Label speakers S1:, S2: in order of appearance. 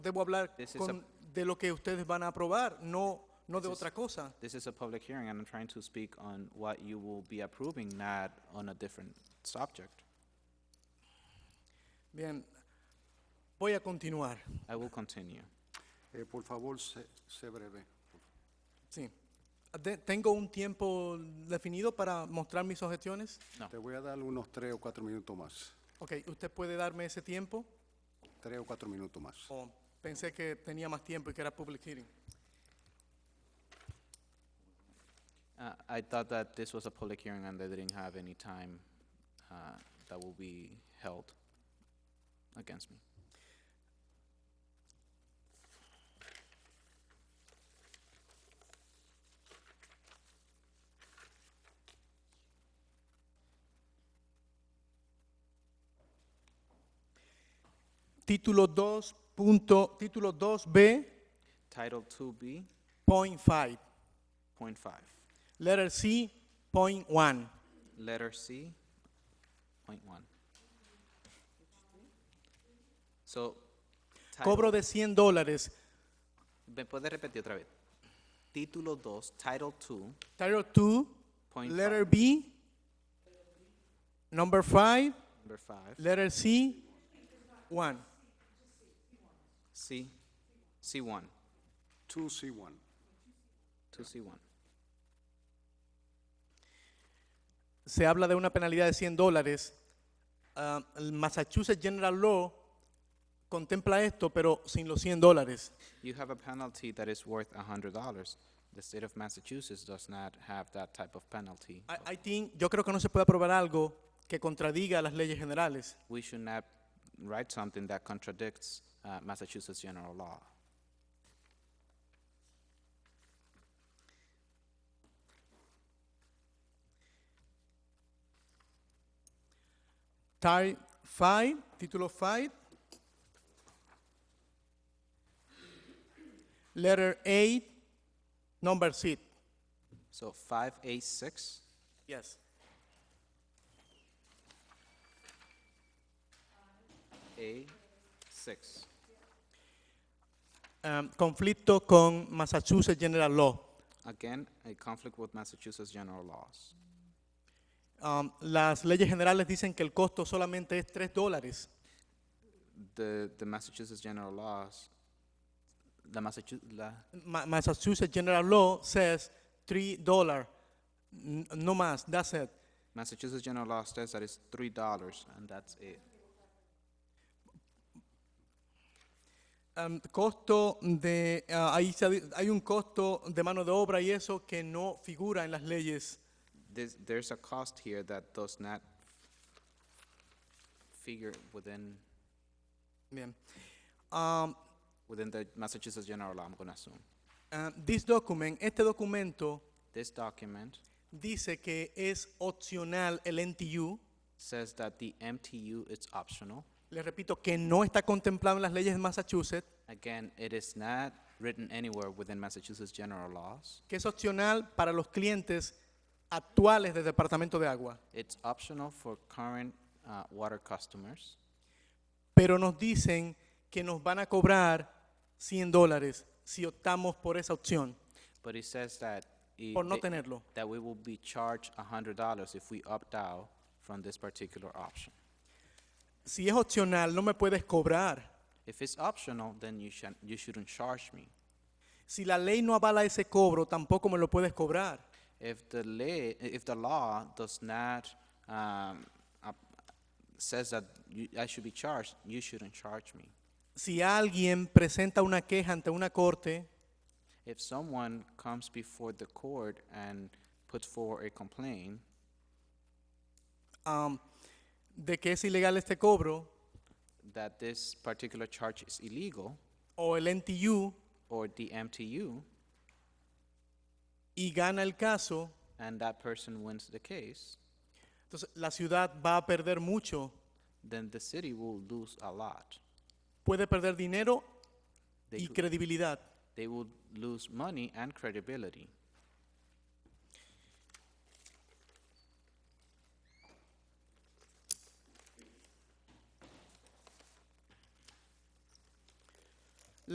S1: debo hablar
S2: This is
S1: con- de lo que ustedes van a aprobar, no, no de
S2: This is-
S1: otra cosa.
S2: This is a public hearing, and I'm trying to speak on what you will be approving, not on a different subject.
S1: Bien, voy a continuar.
S2: I will continue.
S3: Eh, por favor, sé, sé breve.
S1: Sí. De- ¿Tengo un tiempo definido para mostrar mis objeciones?
S2: No.
S3: Te voy a dar unos tres o cuatro minutos más.
S1: Ok, ¿usted puede darme ese tiempo?
S3: Tres o cuatro minutos más.
S1: O pensé que tenía más tiempo y que era public hearing.
S2: Uh, I thought that this was a public hearing and they didn't have any time uh, that will be held against me.
S1: Título 2. punto- título 2B.5.
S2: Title 2B, point 5.
S1: Letter C. Point 1.
S2: Letter C, point 1. So, title-
S1: Cobro de 100 dólares.
S2: ¿Me puede repetir otra vez? Título 2, Title 2,
S1: Title 2.
S2: Point
S1: Letter B. Number 5.
S2: number 5.
S1: Letter C. 1.
S2: C, C1,
S3: 2C1.
S2: 2C1.
S1: se habla de una penalidad de 100 dólares. Ah, el Massachusetts General Law contempla esto, pero sin los 100 dólares.
S2: You have a penalty that is worth $100. The state of Massachusetts does not have that type of penalty.
S1: I, I think- yo creo que no se puede aprobar algo que contradiga las leyes generales.
S2: we should not write something that contradicts uh, Massachusetts general law.
S1: Type 5, título 5. Letter 8, number 6.
S2: So 5A6,
S1: Yes.
S2: A6,
S1: Ah, conflicto con Massachusetts General Law.
S2: again, a conflict with Massachusetts general laws.
S1: Um, las leyes generales dicen que el costo solamente es 3 dólares.
S2: The, the Massachusetts general laws, the Massachusetts,
S1: Ma- Massachusetts General Law says three dollar, n- no más. That's it.
S2: Massachusetts general law says that it's three dollars and that's it.
S1: Um, costo de ah, ahí se di- hay un costo de mano de obra y eso que no figura en las leyes.
S2: There's, there's a cost here that does not figure within,
S1: Bien. Um,
S2: within the Massachusetts general law, I'm gonna assume.
S1: ah, this document, este documento
S2: This document
S1: dice que es opcional el NTU.
S2: says that the MTU is optional.
S1: Le repito que no está contemplado en las leyes de Massachusetts,
S2: Again, it is not written anywhere within Massachusetts general laws.
S1: que es opcional para los clientes actuales del Departamento de Agua.
S2: It's optional for current uh, water customers,
S1: pero nos dicen que nos van a cobrar 100 dólares si optamos por esa opción,
S2: but it says that i-
S1: por no
S2: they-
S1: tenerlo.
S2: that we will be charged $100 if we opt out from this particular option.
S1: Si es opcional, no me puedes cobrar.
S2: If it's optional, then you should you shouldn't charge me.
S1: Si la ley no avala ese cobro, tampoco me lo puedes cobrar.
S2: If the lay, if the law does not um, up- says that you, I should be charged, you shouldn't charge me.
S1: Si alguien presenta una queja ante una corte
S2: If someone comes before the court and puts forward a complaint
S1: am, um, de que es ilegal este cobro
S2: that this particular charge is illegal
S1: o el NTU
S2: or the MTU,
S1: y gana el caso,
S2: and that person wins the case,
S1: entonces la ciudad va a perder mucho.
S2: then the city will lose a lot.
S1: Puede perder dinero
S2: They,
S1: y
S2: could-
S1: credibilidad.
S2: they will lose money and credibility.